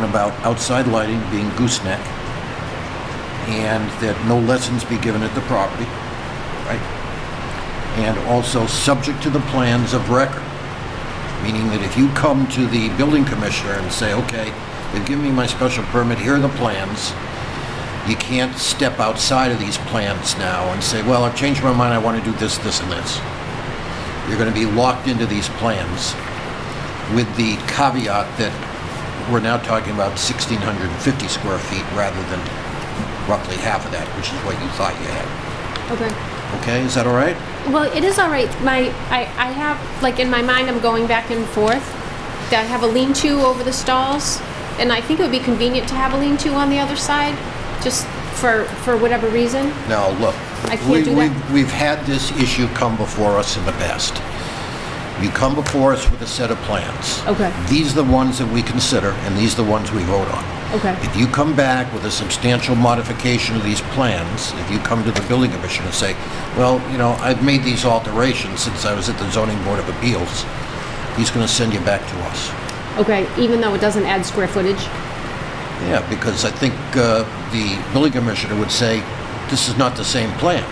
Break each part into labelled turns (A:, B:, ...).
A: one about outside lighting being gooseneck, and that no lessons be given at the property, right? And also subject to the plans of record, meaning that if you come to the building commissioner and say, okay, they've given me my special permit, here are the plans, you can't step outside of these plans now and say, well, I've changed my mind, I want to do this, this, and this. You're going to be locked into these plans with the caveat that we're now talking about 1,650 square feet rather than roughly half of that, which is what you thought you had.
B: Okay.
A: Okay, is that all right?
B: Well, it is all right. My, I, I have, like, in my mind, I'm going back and forth. I have a lean-to over the stalls, and I think it would be convenient to have a lean-to on the other side, just for, for whatever reason.
A: Now, look.
B: I can't
A: we-
B: do
A: we-
B: that.
A: We've had this issue come before us in the past. You come before us with a set of plans.
B: Okay.
A: These are the ones that we consider, and these are the ones we vote on.
B: Okay.
A: If you come back with a substantial modification of these plans, if you come to the building commission and say, well, you know, I've made these alterations since I was at the zoning board of appeals, he's going to send you back to us.
B: Okay, even though it doesn't add square footage?
A: Yeah, because I think uh, the building commissioner would say, this is not the same plan.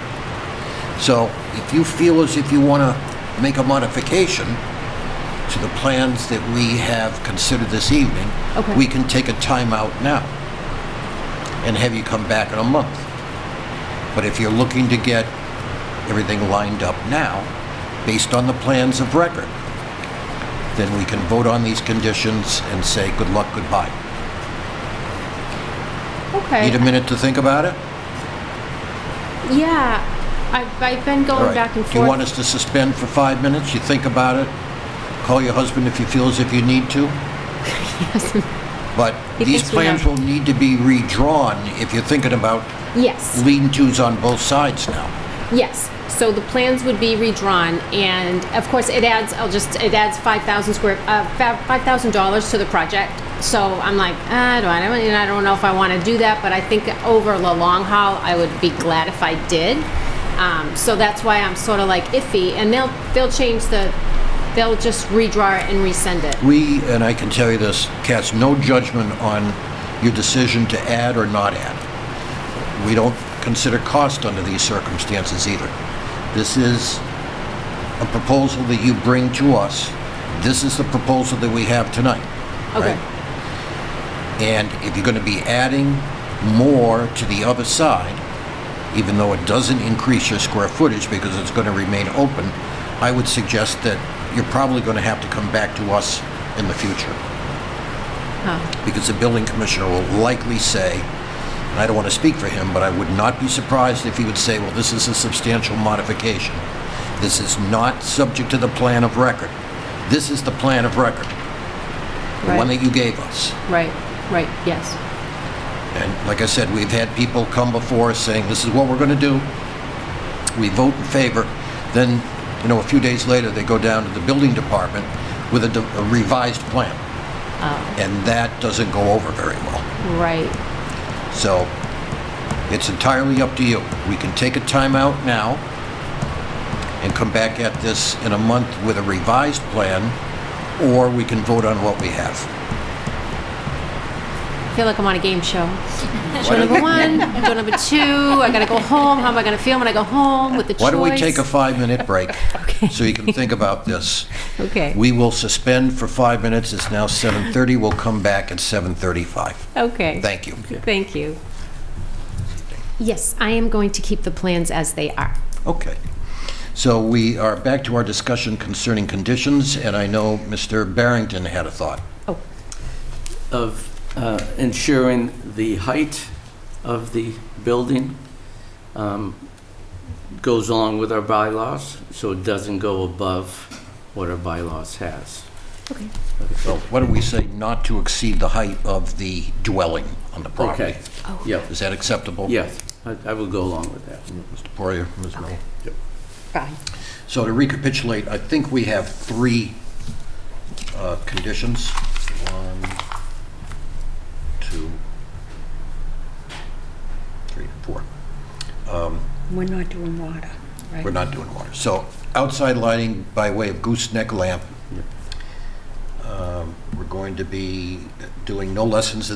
A: So if you feel as if you want to make a modification to the plans that we have considered this evening,
B: Okay.
A: we can take a timeout now and have you come back in a month. But if you're looking to get everything lined up now, based on the plans of record, then we can vote on these conditions and say, good luck, goodbye.
B: Okay.
A: Need a minute to think about it?
B: Yeah, I've, I've been
A: All
B: going
A: right.
B: back and forth.
A: Do you want us to suspend for five minutes? You think about it? Call your husband if you feel as if you need to? But
B: He
A: these
B: thinks we
A: plans
B: have-
A: will need to be redrawn if you're thinking about
B: Yes.
A: lean-tos on both sides now.
B: Yes, so the plans would be redrawn, and of course, it adds, I'll just, it adds five thousand square, uh, five thousand dollars to the project. So I'm like, "Uh, I don't, I don't, I don't know if I want to do that, but I think over the long haul, I would be glad if I did. Um, so that's why I'm sort of like iffy, and they'll, they'll change the, they'll just redraw it and resend it.
A: We, and I can tell you this, cast no judgment on your decision to add or not add. We don't consider cost under these circumstances either. This is a proposal that you bring to us. This is the proposal that we have tonight.
B: Okay,
A: right? And if you're going to be adding more to the other side, even though it doesn't increase your square footage because it's going to remain open, I would suggest that you're probably going to have to come back to us in the future. Because the building commissioner will likely say, and I don't want to speak for him, but I would not be surprised if he would say, well, this is a substantial modification. This is not subject to the plan of record. This is the plan of record, the one
B: right,
A: that you gave us.
B: right, right, yes.
A: And like I said, we've had people come before us saying, this is what we're going to do. We vote in favor. Then, you know, a few days later, they go down to the building department with a de- a revised plan. And that doesn't go over very well.
B: Right.
A: So it's entirely up to you. We can take a timeout now and come back at this in a month with a revised plan, or we can vote on what we have.
B: I feel like I'm on a game show. Show number one, show number two. I gotta go home. How am I gonna feel when I go home with the choice?
A: Why don't we take a five-minute break? So you can think about this.
B: Okay.
A: We will suspend for five minutes. It's now 7:30. We'll come back at 7:35.
B: okay.
A: Thank you.
B: Thank you. Yes, I am going to keep the plans as they are.
A: Okay. So we are back to our discussion concerning conditions, and I know Mr. Barrington had a thought.
B: Oh,
C: of uh, ensuring the height of the building um, goes along with our bylaws, so it doesn't go above what our bylaws has.
B: okay.
A: So what do we say not to exceed the height of the dwelling on the property?
C: Okay. Yep,
A: Is that acceptable?
C: yes, I I will go along with that.
A: Mr. Poirier, Ms. Miller.
B: Bye.
A: So to recapitulate, I think we have three uh, conditions. One, two, three, four.
D: We're not doing water, right?
A: We're not doing water. So outside lighting by way of gooseneck lamp. Um, We're going going to be doing no lessons at